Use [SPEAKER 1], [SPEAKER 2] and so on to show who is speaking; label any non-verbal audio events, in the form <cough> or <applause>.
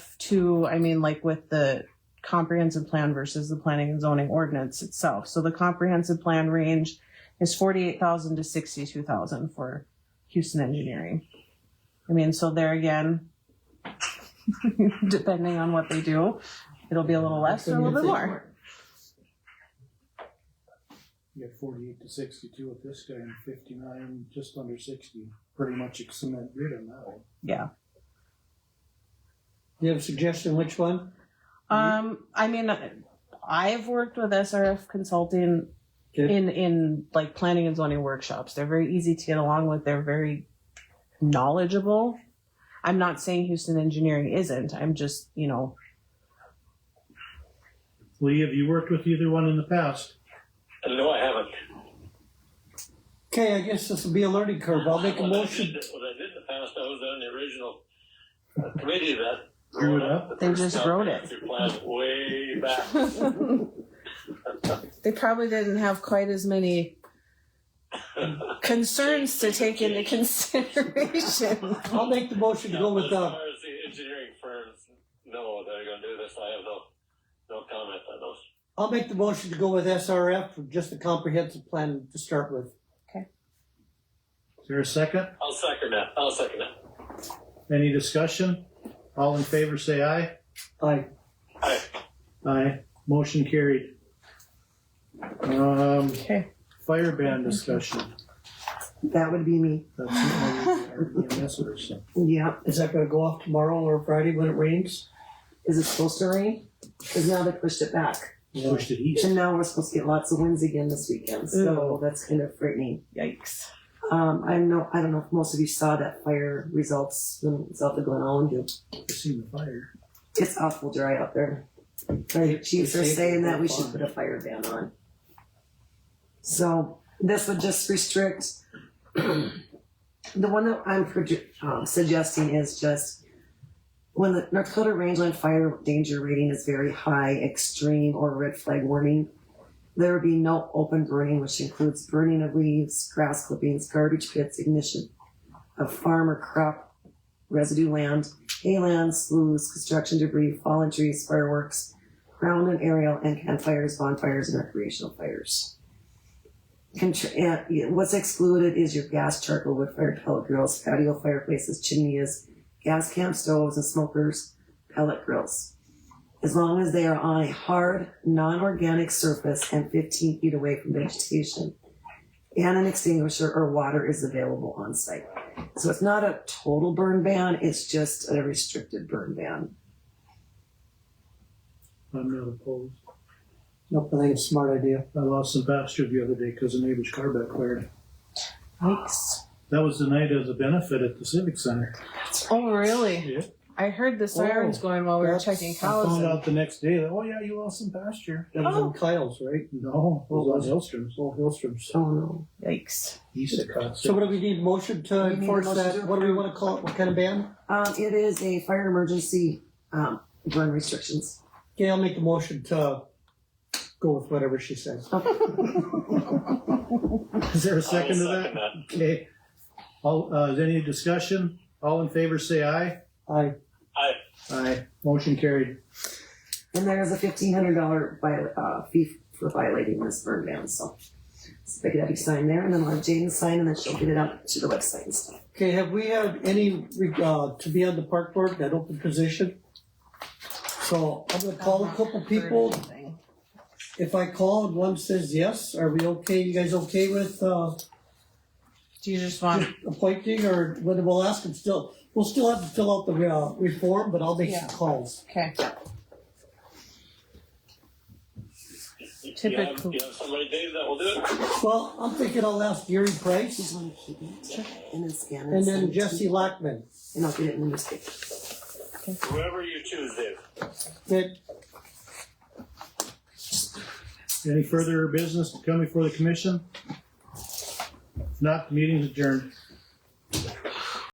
[SPEAKER 1] to, I mean, like with the comprehensive plan versus the planning and zoning ordinance itself. So the comprehensive plan range is forty-eight thousand to sixty-two thousand for Houston engineering. I mean, so there again, <laughs> depending on what they do, it'll be a little less or a little bit more.
[SPEAKER 2] You got forty-eight to sixty-two with this guy and fifty-nine, just under sixty, pretty much a cement grid on that one.
[SPEAKER 1] Yeah.
[SPEAKER 3] You have a suggestion, which one?
[SPEAKER 1] Um, I mean, I've worked with SRF Consulting
[SPEAKER 3] Okay.
[SPEAKER 1] in in like planning and zoning workshops. They're very easy to get along with. They're very knowledgeable. I'm not saying Houston Engineering isn't. I'm just you know
[SPEAKER 2] Lee, have you worked with either one in the past?
[SPEAKER 4] No, I haven't.
[SPEAKER 3] Okay, I guess this will be a learning curve. I'll make a
[SPEAKER 4] What I
[SPEAKER 3] motion.
[SPEAKER 4] did- What I did in the past, I was on the original uh, committee that.
[SPEAKER 2] Drew it up?
[SPEAKER 1] They just wrote it.
[SPEAKER 4] Comprehensive Plan way back.
[SPEAKER 3] <laughs>
[SPEAKER 1] they probably didn't have quite as many concerns to take into consideration.
[SPEAKER 3] I'll make the motion to go with,
[SPEAKER 4] Now, As
[SPEAKER 3] uh,
[SPEAKER 4] far as the engineering firms, no, they're gonna do this, I have no, no comment on those.
[SPEAKER 3] I'll make the motion to go with SRF for just a comprehensive plan to start with.
[SPEAKER 2] Is there a second?
[SPEAKER 4] I'll second that, I'll second that.
[SPEAKER 2] Any discussion? All in favor, say aye.
[SPEAKER 3] Aye.
[SPEAKER 2] Aye. Motion carried. Um,
[SPEAKER 1] Okay.
[SPEAKER 2] fire ban discussion.
[SPEAKER 5] That would be me.
[SPEAKER 2] That's the only our EMS person.
[SPEAKER 5] Yeah.
[SPEAKER 3] Is that gonna go off tomorrow or Friday when it rains?
[SPEAKER 5] Is it supposed to rain? Because now they pushed it back.
[SPEAKER 2] Pushed it east.
[SPEAKER 5] And now we're supposed to get lots of winds again this weekend. So that's kind of frightening.
[SPEAKER 1] Yikes.
[SPEAKER 5] Um, I know I don't know if most of you saw that fire results when it's out the Glen Island.
[SPEAKER 2] I seen the fire.
[SPEAKER 5] It's awful dry out there. The chiefs are saying that we should put a fire ban on. So this would just restrict. <clears throat> the one that I'm proje- uh, suggesting is just when the North Dakota Rangeland Fire Danger Rating is very high, extreme, or red flag warning. There would be no open burning, which includes burning of leaves, grass clippings, garbage pits, ignition of farm or crop residue land, haylands, sloughs, construction debris, fallen trees, fireworks, ground and aerial, and campfires, bonfires, and recreational fires. Contr- and, yeah, what's excluded is your gas, charcoal, wood fire, pellet grills, patio fireplaces, chimneys, gas camp stoves and smokers, pellet grills. As long as they are on a hard, non-organic surface and 15 feet away from vegetation, and an extinguisher or water is available on site. So it's not a total burn ban, it's just a restricted burn ban.
[SPEAKER 2] I'm not opposed.
[SPEAKER 3] Nope, I think it's a smart idea.
[SPEAKER 2] I lost some pasture the other day because a neighbor's car backfired.
[SPEAKER 1] Yikes.
[SPEAKER 2] That was the night of the benefit at the Civic Center.
[SPEAKER 1] Oh, really?
[SPEAKER 2] Yeah.
[SPEAKER 1] I heard the sirens going while we were
[SPEAKER 3] that's-
[SPEAKER 1] checking
[SPEAKER 2] I
[SPEAKER 1] cows.
[SPEAKER 2] found
[SPEAKER 1] and-
[SPEAKER 2] out the next day that, oh yeah, you lost some pasture.
[SPEAKER 3] That was
[SPEAKER 1] Oh.
[SPEAKER 3] on Kyle's, right?
[SPEAKER 2] No, it was on Hillstrom's.
[SPEAKER 3] Oh, Hillstrom's.
[SPEAKER 5] Oh no.
[SPEAKER 1] Yikes.
[SPEAKER 2] East of Cox.
[SPEAKER 3] So what do we need, motion to
[SPEAKER 5] We need a
[SPEAKER 3] enforce
[SPEAKER 5] motion
[SPEAKER 3] that?
[SPEAKER 5] to
[SPEAKER 3] What do we
[SPEAKER 5] approve.
[SPEAKER 3] wanna call it? What kind of ban?
[SPEAKER 5] Um, it is a fire emergency, um, burn restrictions.
[SPEAKER 3] Okay, I'll make the motion to go with whatever she says.
[SPEAKER 2] Is there a
[SPEAKER 4] I
[SPEAKER 2] second to
[SPEAKER 4] will
[SPEAKER 2] that?
[SPEAKER 4] second that.
[SPEAKER 2] Okay. All, uh, is any discussion? All in favor, say aye.
[SPEAKER 3] Aye.
[SPEAKER 2] Aye. Motion carried.
[SPEAKER 5] And there is a fifteen hundred dollar viola uh, fee for violating this burn ban, so. So pick it up, you sign there, and then I'll have Jane sign, and then she'll get it out to the website and stuff.
[SPEAKER 3] Okay, have we had any, uh, to be on the park board, that open position? So I'm gonna call a couple people. If I call and one says yes, are we okay? You guys okay with, uh,
[SPEAKER 1] Do you just want?
[SPEAKER 3] appointing or whether we'll ask them still? We'll still have to fill out the, uh, reform, but I'll make some calls.
[SPEAKER 1] Okay.
[SPEAKER 4] You- You have,
[SPEAKER 1] Typical.
[SPEAKER 4] you have somebody, Dave, that will do it?
[SPEAKER 3] Well, I'm thinking I'll ask Gary Price
[SPEAKER 5] Just wanna keep it, and then scan it.
[SPEAKER 3] and
[SPEAKER 5] send
[SPEAKER 3] then
[SPEAKER 5] it to
[SPEAKER 3] Jesse
[SPEAKER 5] me,
[SPEAKER 3] Lackman.
[SPEAKER 5] And I'll get it in the newspaper.
[SPEAKER 4] Whoever you choose, Dave.
[SPEAKER 3] That,
[SPEAKER 2] Any further business to come before the commission? If not, the meeting is adjourned.